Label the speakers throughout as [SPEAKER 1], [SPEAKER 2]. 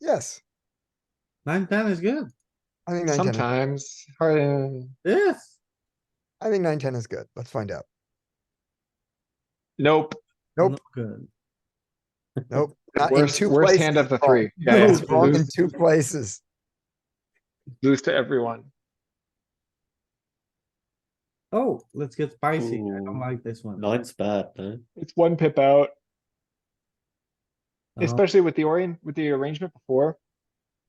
[SPEAKER 1] Yes,
[SPEAKER 2] Nine, ten is good.
[SPEAKER 1] I think nine, ten,
[SPEAKER 3] Sometimes, hard, uh,
[SPEAKER 2] Yes.
[SPEAKER 1] I think nine, ten is good. Let's find out.
[SPEAKER 3] nope,
[SPEAKER 1] Nope.
[SPEAKER 2] Not Good.
[SPEAKER 1] Nope. not in
[SPEAKER 3] worst,
[SPEAKER 1] two
[SPEAKER 3] worst
[SPEAKER 1] places
[SPEAKER 3] hand of the
[SPEAKER 1] wrong.
[SPEAKER 3] three.
[SPEAKER 1] No,
[SPEAKER 3] Yeah,
[SPEAKER 1] it's
[SPEAKER 3] yeah,
[SPEAKER 1] wrong in
[SPEAKER 3] lose-
[SPEAKER 1] two places.
[SPEAKER 3] Lose to everyone.
[SPEAKER 2] Oh, let's get spicy. I don't
[SPEAKER 4] Ooh.
[SPEAKER 2] like this one.
[SPEAKER 4] Nine's bad, no?
[SPEAKER 3] It's one pip out,
[SPEAKER 2] Oh.
[SPEAKER 3] especially with the orient, with the arrangement before.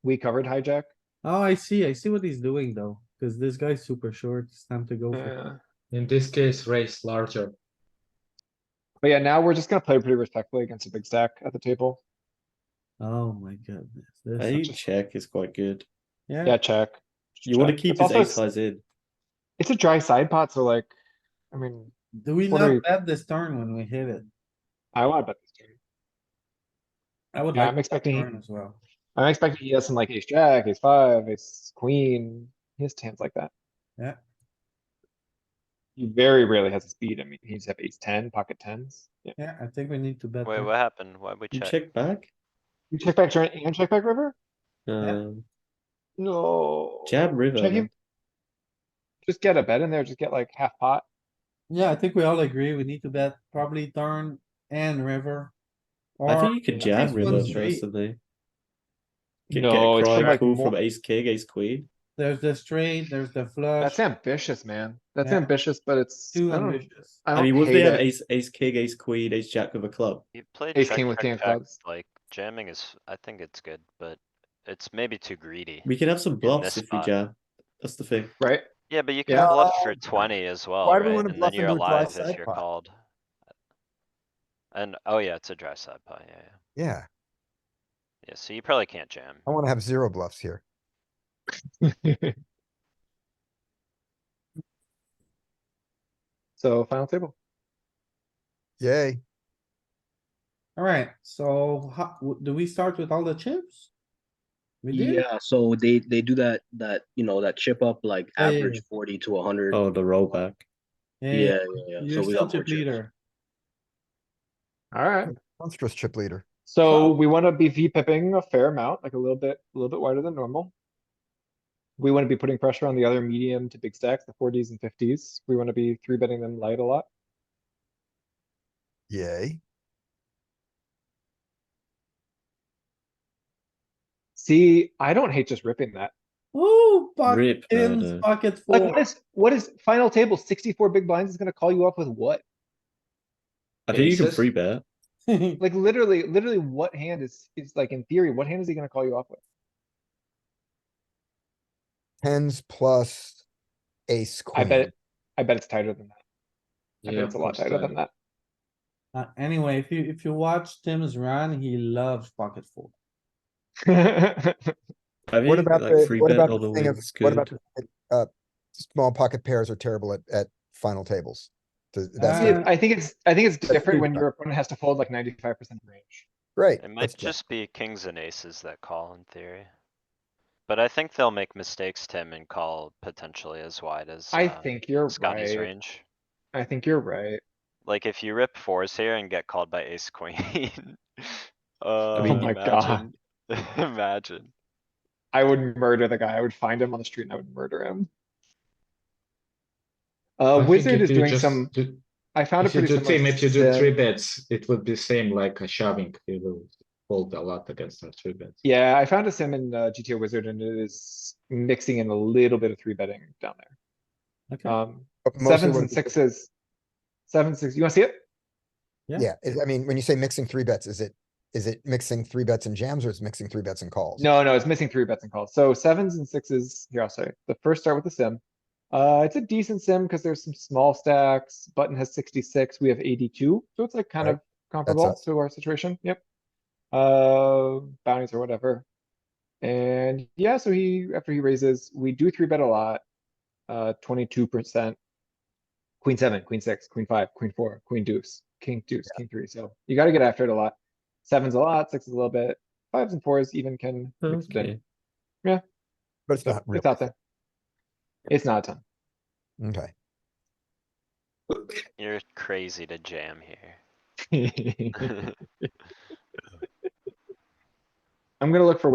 [SPEAKER 3] We covered hijack.
[SPEAKER 2] Oh, I see. I see what he's doing though, because this guy's super short. It's time to go. for it.
[SPEAKER 3] Uh,
[SPEAKER 5] In this case, raise larger.
[SPEAKER 3] But yeah, now we're just gonna play pretty respectfully against a big stack at the table.
[SPEAKER 2] Oh my goodness.
[SPEAKER 4] I
[SPEAKER 2] This,
[SPEAKER 4] think check is quite good.
[SPEAKER 3] Yeah,
[SPEAKER 2] yeah,
[SPEAKER 3] check.
[SPEAKER 4] You wanna
[SPEAKER 3] Check.
[SPEAKER 4] keep
[SPEAKER 3] It's
[SPEAKER 4] his ace
[SPEAKER 3] also,
[SPEAKER 4] highs in.
[SPEAKER 3] it's a dry side pot, so like, I mean,
[SPEAKER 2] do we
[SPEAKER 3] What are
[SPEAKER 2] not
[SPEAKER 3] you-
[SPEAKER 2] bet this turn when we hit it?
[SPEAKER 3] I wanna bet this turn.
[SPEAKER 2] I would
[SPEAKER 3] Yeah,
[SPEAKER 2] like
[SPEAKER 3] I'm
[SPEAKER 2] to bet
[SPEAKER 3] expecting-
[SPEAKER 2] turn as well.
[SPEAKER 3] I'm expecting he has some like ace jack, ace five, ace queen, he has hands like that.
[SPEAKER 2] Yeah.
[SPEAKER 3] He very rarely has a speed, I mean, he's have ace ten, pocket tens, yeah.
[SPEAKER 2] Yeah, I think we need to bet.
[SPEAKER 6] Wait,
[SPEAKER 2] turn.
[SPEAKER 6] what happened? Why we
[SPEAKER 4] You
[SPEAKER 6] check?
[SPEAKER 4] check back?
[SPEAKER 3] You check back turn and check back river?
[SPEAKER 4] Um,
[SPEAKER 3] No.
[SPEAKER 4] jab river.
[SPEAKER 3] Check him.
[SPEAKER 4] man.
[SPEAKER 3] Just get a bet in there, just get like half pot,
[SPEAKER 2] Yeah, I think we all agree. We need to bet probably turn and river.
[SPEAKER 4] I
[SPEAKER 2] or
[SPEAKER 4] think you can jab
[SPEAKER 2] ace
[SPEAKER 4] river
[SPEAKER 2] one street.
[SPEAKER 4] personally. Get, get
[SPEAKER 3] No,
[SPEAKER 4] a
[SPEAKER 3] it's
[SPEAKER 4] cry
[SPEAKER 3] like
[SPEAKER 4] cool
[SPEAKER 3] more-
[SPEAKER 4] from ace king, ace queen.
[SPEAKER 2] There's the straight, there's the flush,
[SPEAKER 3] that's ambitious, man, that's
[SPEAKER 2] Yeah.
[SPEAKER 3] ambitious, but it's, I
[SPEAKER 2] two
[SPEAKER 3] don't,
[SPEAKER 2] ambitious.
[SPEAKER 3] I
[SPEAKER 4] I mean,
[SPEAKER 3] don't
[SPEAKER 4] would they have
[SPEAKER 3] hate it.
[SPEAKER 4] ace, ace king, ace queen, ace jack of a club?
[SPEAKER 6] You played
[SPEAKER 3] Ace
[SPEAKER 6] check,
[SPEAKER 3] king with king
[SPEAKER 6] check,
[SPEAKER 3] of
[SPEAKER 6] check,
[SPEAKER 3] clubs.
[SPEAKER 6] like jamming is, I think it's good, but it's maybe too greedy.
[SPEAKER 4] We can have some bluffs if
[SPEAKER 6] this
[SPEAKER 4] we
[SPEAKER 6] spot.
[SPEAKER 4] jab. That's the thing.
[SPEAKER 3] Right,
[SPEAKER 6] Yeah, but you can
[SPEAKER 3] Yeah.
[SPEAKER 6] bluff for twenty as well,
[SPEAKER 1] Why
[SPEAKER 6] right?
[SPEAKER 1] do we wanna
[SPEAKER 6] And
[SPEAKER 1] bluff
[SPEAKER 6] then you're
[SPEAKER 1] into a dry
[SPEAKER 6] alive
[SPEAKER 1] side
[SPEAKER 6] if you're
[SPEAKER 1] pot?
[SPEAKER 6] called. And, oh yeah, it's a dry side pot, yeah, yeah.
[SPEAKER 1] Yeah,
[SPEAKER 6] Yeah, so you probably can't jam.
[SPEAKER 1] I wanna have zero bluffs here.
[SPEAKER 3] so final table,
[SPEAKER 1] Yay.
[SPEAKER 2] Alright, so how, w- do we start with all the chips? We did?
[SPEAKER 7] Yeah, so they they do that that you know that chip up like
[SPEAKER 2] Yeah, yeah,
[SPEAKER 7] average forty to hundred.
[SPEAKER 4] Oh, the rollback.
[SPEAKER 7] Yeah, yeah, yeah. So
[SPEAKER 2] You're still
[SPEAKER 7] we got more
[SPEAKER 2] chip
[SPEAKER 7] chips.
[SPEAKER 2] leader.
[SPEAKER 3] alright.
[SPEAKER 1] Monstrous chip leader.
[SPEAKER 3] So we wanna be V pipping a fair amount, like a little bit, a little bit wider than normal. We wanna be putting pressure on the other medium to big stacks, the forties and fifties. We wanna be three betting them light a lot.
[SPEAKER 1] Yay.
[SPEAKER 3] See, I don't hate just ripping that.
[SPEAKER 2] Ooh, pocket
[SPEAKER 4] Rip. no, no.
[SPEAKER 2] tens, pocket
[SPEAKER 3] Like, what
[SPEAKER 2] four.
[SPEAKER 3] is, what is final table sixty-four big blinds is gonna call you up with what?
[SPEAKER 4] I think you can
[SPEAKER 5] Aces?
[SPEAKER 4] free bet.
[SPEAKER 3] Like, literally, literally what hand is, is like in theory, what hand is he gonna call you up with?
[SPEAKER 1] Tens plus ace
[SPEAKER 3] I
[SPEAKER 1] queen.
[SPEAKER 3] bet, it- I bet it's tighter than that. I bet
[SPEAKER 5] Yeah,
[SPEAKER 3] it's a lot
[SPEAKER 5] most
[SPEAKER 3] tighter than
[SPEAKER 5] time.
[SPEAKER 3] that.
[SPEAKER 2] Uh, Anyway, if you, if you watch Tim's run, he loves pocket four.
[SPEAKER 4] I think
[SPEAKER 1] What about
[SPEAKER 4] like
[SPEAKER 1] the,
[SPEAKER 4] free
[SPEAKER 1] what
[SPEAKER 4] bet
[SPEAKER 1] about
[SPEAKER 4] on the
[SPEAKER 1] the thing of,
[SPEAKER 4] wind's
[SPEAKER 1] what about,
[SPEAKER 4] good.
[SPEAKER 1] the, uh, small pocket pairs are terrible at, at final tables. Th-
[SPEAKER 3] See,
[SPEAKER 1] That's
[SPEAKER 2] Uh,
[SPEAKER 3] it- I think it's, I think it's
[SPEAKER 1] That's
[SPEAKER 3] different when
[SPEAKER 1] feedback.
[SPEAKER 3] your opponent has to fold like ninety-five percent range.
[SPEAKER 1] great.
[SPEAKER 6] It
[SPEAKER 1] That's
[SPEAKER 6] might
[SPEAKER 1] great.
[SPEAKER 6] just be kings and aces that call in theory. But I think they'll make mistakes, Tim, and call potentially as wide as,
[SPEAKER 3] I
[SPEAKER 6] uh,
[SPEAKER 3] think you're
[SPEAKER 6] Scotty's
[SPEAKER 3] right.
[SPEAKER 6] range.
[SPEAKER 3] I think you're right.
[SPEAKER 6] Like if you rip fours here and get called by ace queen. Uh,
[SPEAKER 3] mean- Oh my
[SPEAKER 6] imagine, imagine.
[SPEAKER 3] I would murder the guy. I would find him on the street and I would murder him.
[SPEAKER 5] I
[SPEAKER 3] Uh,
[SPEAKER 5] think
[SPEAKER 3] Wizard
[SPEAKER 5] if
[SPEAKER 3] is
[SPEAKER 5] you
[SPEAKER 3] doing
[SPEAKER 5] just
[SPEAKER 3] some, uh,
[SPEAKER 5] do-
[SPEAKER 3] I found a
[SPEAKER 5] If you
[SPEAKER 3] pretty
[SPEAKER 5] do
[SPEAKER 3] similar
[SPEAKER 5] team, if you do
[SPEAKER 3] set.
[SPEAKER 5] three bets, it would be same like a shoving, you will fold a lot against our three bets.
[SPEAKER 3] Yeah, I found a sim in uh, GTO Wizard and it is mixing in a little bit of three betting down there.
[SPEAKER 2] Okay,
[SPEAKER 3] Um,
[SPEAKER 1] But mostly
[SPEAKER 3] sevens
[SPEAKER 1] when
[SPEAKER 3] and
[SPEAKER 1] people-
[SPEAKER 3] sixes. Seven, six, you wanna see it?
[SPEAKER 2] Yeah.
[SPEAKER 1] Yeah, is- I mean, when you say mixing three bets, is it, is it mixing three bets and jams or is it mixing three bets and calls?
[SPEAKER 3] No, no, it's missing three bets and calls. So sevens and sixes, here, I'll say, the first start with the sim. Uh, it's a decent sim because there's some small stacks. Button has sixty-six, we have eighty-two, so it's like kind
[SPEAKER 1] Right.
[SPEAKER 3] of comparable
[SPEAKER 1] us.
[SPEAKER 3] to our situation, yep. Uh, bounties or whatever. And yeah, so he, after he raises, we do three bet a lot. Uh, twenty-two percent. Queen seven, queen six, queen five, queen four, queen deuce, king deuce, king three, so you gotta get after it a lot. Sevens a lot, sixes a little bit, fives and fours even can mix it in.
[SPEAKER 4] Okay.
[SPEAKER 1] But it's
[SPEAKER 3] So,
[SPEAKER 1] not real.
[SPEAKER 3] It's out there. It's not a ton.
[SPEAKER 1] Okay.
[SPEAKER 6] You're crazy to jam here.
[SPEAKER 3] I'm gonna look for